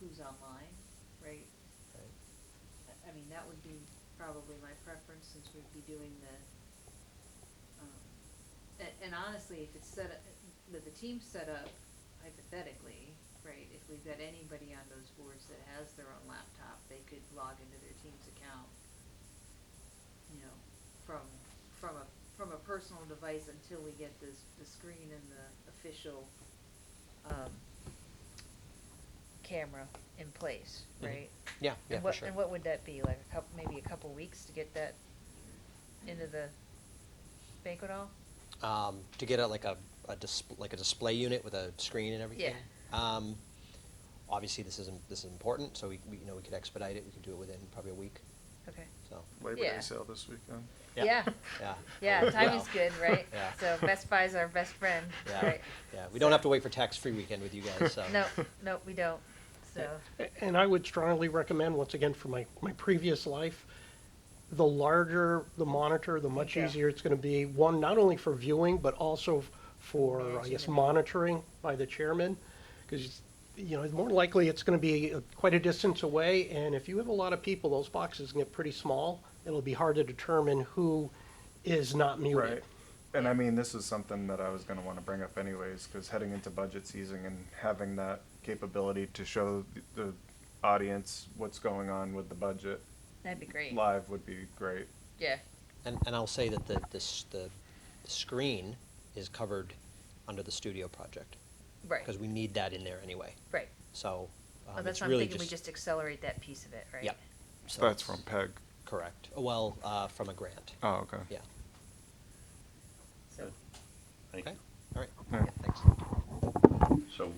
who's online, right? right? I- I mean, that would be probably my preference, since we'd be doing the, um, and, and honestly, if it's set up, with the team set up hypothetically, right, if we've got anybody on those boards that has their own laptop, they could log into their team's account, you know, from, from a, from a personal device until we get this, the screen and the official, um, camera in place, Mhm. right? Yeah, yeah, And for what, sure. and what would that be, like a couple, maybe a couple weeks to get that into the banquet hall? Um, to get a, like a, a disp- like a display unit with a screen and everything. Yeah. Um, obviously, this isn't, this is important, so we, we, you know, we could expedite it, we could do it within probably a week, Okay. so. Labor Day Yeah. sale this weekend. Yeah. Yeah, Yeah. yeah, time Wow. is good, right? Yeah. So Best Buy's our best friend, Yeah, right? yeah, we don't have So- to wait for tax-free weekend with you guys, so. No, no, we don't, so, A- And I would strongly recommend, once again, for my, my previous life, the larger the monitor, the much Yeah. easier it's gonna be, one, not only for viewing, but also f- for, I guess, Managing it. monitoring by the chairman. Because, you know, more likely it's gonna be uh, quite a distance away, and if you have a lot of people, those boxes can get pretty small. It'll be hard to determine who is not Right. muted. And I mean, this is something that I was gonna wanna bring up anyways, cause heading into budget season and having that capability to show th- the audience what's going on with the budget that'd be great, live would be great. yeah, And, and I'll say that the, this, the screen is covered under the studio project, right, because we need that in there anyway, right. so. Well, um, that's uh, it's why I'm really thinking we just accelerate that piece of it, right? Yeah. So So it's- That's from Peg. Correct, well, uh, from a grant, Oh, okay. yeah, So, Thank okay, you. all right, Yeah. thanks. So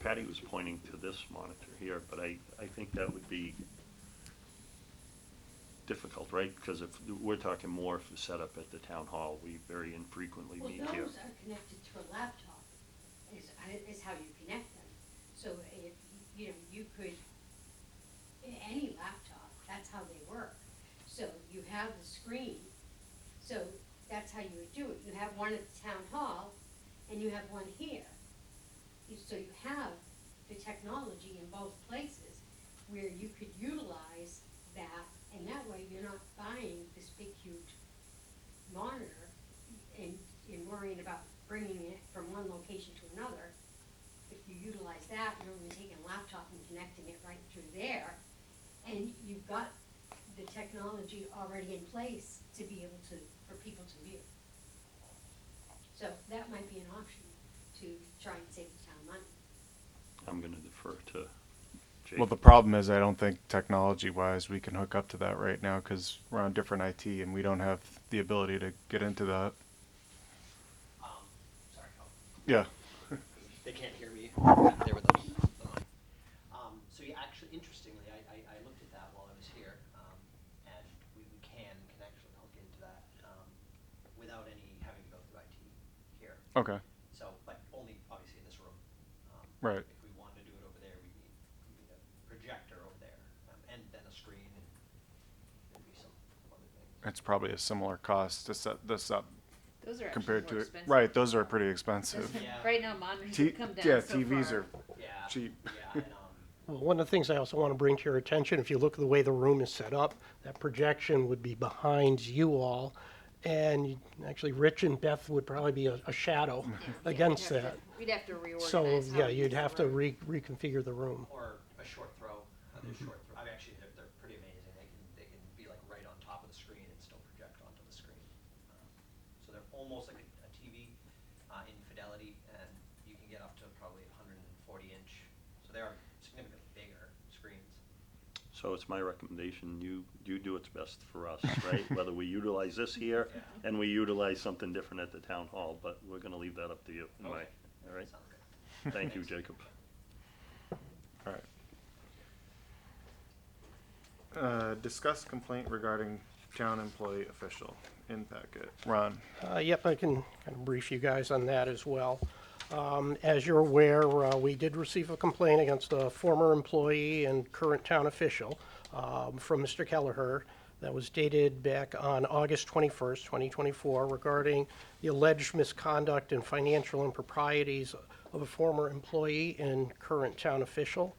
Patty was pointing to this monitor here, but I, I think that would be difficult, right? Because if, we're talking more if set up at the town hall, we very infrequently Well, meet here. those are connected to a laptop, is, is how you connect them. So if, you know, you could, a- any laptop, that's how they work. So you have the screen, so that's how you would do it. You have one at the town hall, and you have one here. You- So you have the technology in both places where you could utilize that, and that way you're not buying this big huge monitor and, and worrying about bringing it from one location to another. If you utilize that, you're only taking a laptop and connecting it right through there, and you've got the technology already in place to be able to, for people to view. So that might be an option to try and save the town money. I'm gonna defer to Jake. Well, the problem is I don't think technology wise we can hook up to that right now, cause we're on different IT and we don't have the ability to get into that. Sorry, Yeah. They can't hear me. There with them. Um, so you actually, interestingly, I, I, I looked at that while I was here, um, and we, we can, can actually hook into that, um, without any having to go through IT here. Okay. So, but only obviously in this room. Um, Right. If we wanted to do it over there, we need, we need a projector over there, um, and then a screen and maybe some other things. It's probably a similar cost to set this up Those are actually compared more to it. expensive. Right, those are pretty expensive. Yeah. Right now, monitors T- have come down yeah, so TVs far. are Yeah. Cheap. Yeah, and, um, Well, one of the things I also want to bring to your attention, if you look at the way the room is set up, that projection would be behind you all. And you- actually, Rich and Beth would probably be a, a shadow against We'd have that. to- We'd have to reorganize. So, how yeah, we use you'd the have to room. re- reconfigure the room. or a short throw. Uh, they're short throw. I mean, actually, they're, they're pretty amazing. They can they can be like right on top of the screen and still project onto the screen. Um, so they're almost like a, a TV uh, in fidelity, and you can get up to probably 140 inch. So they are significantly bigger screens. So it's my recommendation, you, you do what's best for us, right? Whether we utilize this here Yeah. and we utilize something different at the town hall, but we're gonna leave that up to you. in Okay. my- All right, Sounds good. thank you, Jacob. All right. Uh, discuss complaint regarding town employee official in packet. Ron. Uh, Yep, I can kind of brief you guys on that as well. Um, As you're aware, uh, we did receive a complaint against a former employee and current town official um, from Mr. Kelleher that was dated back on August 21st, 2024, regarding the alleged misconduct and financial improprieties of a former employee and current town official.